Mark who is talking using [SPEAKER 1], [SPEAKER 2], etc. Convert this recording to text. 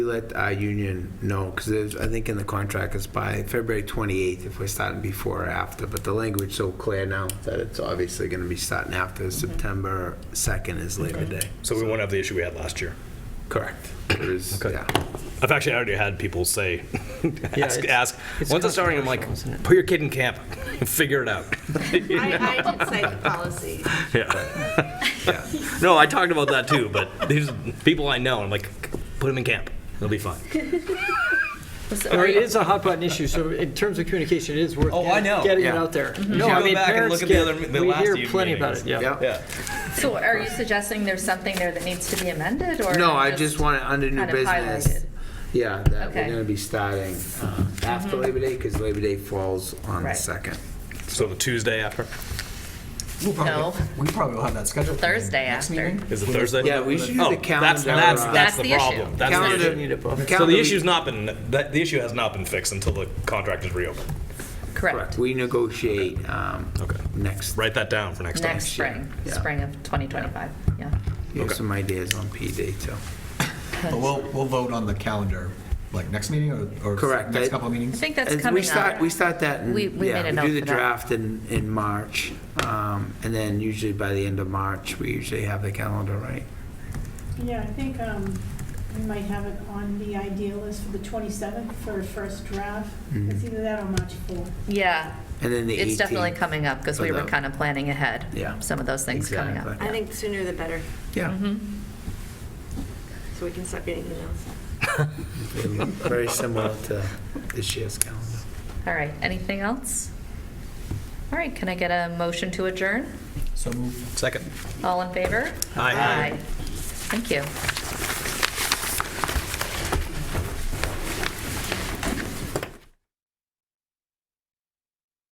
[SPEAKER 1] Let our union know, because I think in the contract is by February 28th, if we're starting before or after, but the language so clear now that it's obviously going to be starting after
[SPEAKER 2] Mm-hmm.
[SPEAKER 1] September 2nd is Labor Day.
[SPEAKER 3] So we won't have the issue we had last year.
[SPEAKER 1] Correct. It is,
[SPEAKER 3] Okay.
[SPEAKER 1] yeah.
[SPEAKER 3] I've actually already had people say, ask,
[SPEAKER 4] it's-
[SPEAKER 3] ask.
[SPEAKER 4] it's
[SPEAKER 3] Once it's starting, I'm like,
[SPEAKER 4] controversial, isn't it?
[SPEAKER 3] put your kid in camp, figure it out.
[SPEAKER 5] I, I did cite the policy.
[SPEAKER 3] Yeah. No, I talked about that too, but these people I know, I'm like, put them in camp. They'll be fine.
[SPEAKER 4] Or it is a hot button issue, so in terms of communication, it is worth
[SPEAKER 3] Oh, I know,
[SPEAKER 4] getting it
[SPEAKER 1] yeah.
[SPEAKER 4] out there.
[SPEAKER 3] should
[SPEAKER 4] No, I
[SPEAKER 3] go
[SPEAKER 4] mean,
[SPEAKER 3] back and
[SPEAKER 4] parents
[SPEAKER 3] look at the
[SPEAKER 4] get-
[SPEAKER 3] other- the
[SPEAKER 4] we
[SPEAKER 3] last
[SPEAKER 4] hear
[SPEAKER 3] few
[SPEAKER 4] plenty about
[SPEAKER 3] meetings.
[SPEAKER 4] it, yeah.
[SPEAKER 1] Yep.
[SPEAKER 3] Yeah.
[SPEAKER 2] So are you suggesting there's something there that needs to be amended or?
[SPEAKER 1] No, I just want it under new
[SPEAKER 2] kind of
[SPEAKER 1] business.
[SPEAKER 2] highlighted.
[SPEAKER 1] Yeah, that we're
[SPEAKER 2] Okay. Mm-hmm.
[SPEAKER 1] going to be starting uh, after Labor Day, because Labor Day falls on the
[SPEAKER 2] Right.
[SPEAKER 1] 2nd.
[SPEAKER 3] So the Tuesday after
[SPEAKER 6] We'll probably,
[SPEAKER 2] No.
[SPEAKER 6] We probably will have that scheduled. for the
[SPEAKER 2] Thursday
[SPEAKER 6] next
[SPEAKER 2] after.
[SPEAKER 6] meeting.
[SPEAKER 3] is it Thursday?
[SPEAKER 1] Yeah, we should use
[SPEAKER 3] Oh,
[SPEAKER 1] the
[SPEAKER 3] That's,
[SPEAKER 1] calendar,
[SPEAKER 3] that's,
[SPEAKER 1] uh,
[SPEAKER 3] that's
[SPEAKER 2] That's
[SPEAKER 3] the
[SPEAKER 2] the issue.
[SPEAKER 3] problem. That's the
[SPEAKER 1] Calendar-
[SPEAKER 3] issue.
[SPEAKER 4] Need it, Bob.
[SPEAKER 3] So
[SPEAKER 1] calendar
[SPEAKER 3] the
[SPEAKER 1] we-
[SPEAKER 3] issue's not been, that, the issue has not been fixed until the contract is reopened.
[SPEAKER 1] Correct.
[SPEAKER 2] Correct.
[SPEAKER 1] We negotiate um,
[SPEAKER 3] Okay.
[SPEAKER 1] next.
[SPEAKER 3] Write that down for next time.
[SPEAKER 2] Next spring,
[SPEAKER 1] Yeah.
[SPEAKER 2] spring of 2025, yeah.
[SPEAKER 1] You have
[SPEAKER 3] Okay.
[SPEAKER 1] some ideas on PD, too.
[SPEAKER 6] But we'll, we'll vote on the calendar, like next meeting or, or
[SPEAKER 1] Correct.
[SPEAKER 6] next
[SPEAKER 1] I-
[SPEAKER 6] couple of
[SPEAKER 2] I
[SPEAKER 6] meetings.
[SPEAKER 2] think that's
[SPEAKER 1] As We
[SPEAKER 2] coming
[SPEAKER 1] start,
[SPEAKER 2] up.
[SPEAKER 1] we start that, in-
[SPEAKER 2] We- we
[SPEAKER 1] yeah,
[SPEAKER 2] made a
[SPEAKER 1] we
[SPEAKER 2] note
[SPEAKER 1] do the
[SPEAKER 2] for that.
[SPEAKER 1] draft in, in March, um, and then usually by the end of March, we usually have the calendar, right?
[SPEAKER 7] Yeah, I think um, we might have it on the idea list for the 27th for a first draft. It's either that or March 4th.
[SPEAKER 2] Yeah,
[SPEAKER 1] And then the 18th.
[SPEAKER 2] it's definitely coming up because
[SPEAKER 1] for
[SPEAKER 2] we were
[SPEAKER 1] the-
[SPEAKER 2] kind of planning ahead.
[SPEAKER 1] Yeah.
[SPEAKER 2] Some of those things coming up. Mm-hmm.
[SPEAKER 1] Exactly.
[SPEAKER 5] I think sooner the better,
[SPEAKER 1] Yeah,
[SPEAKER 5] so we can stop getting emails.
[SPEAKER 2] Mm-hmm.
[SPEAKER 1] very similar to this year's calendar.
[SPEAKER 2] All right, anything else? All right, can I get a motion to adjourn?
[SPEAKER 6] So move.
[SPEAKER 3] Second.
[SPEAKER 2] All in favor?
[SPEAKER 3] Aye.
[SPEAKER 2] Thank you.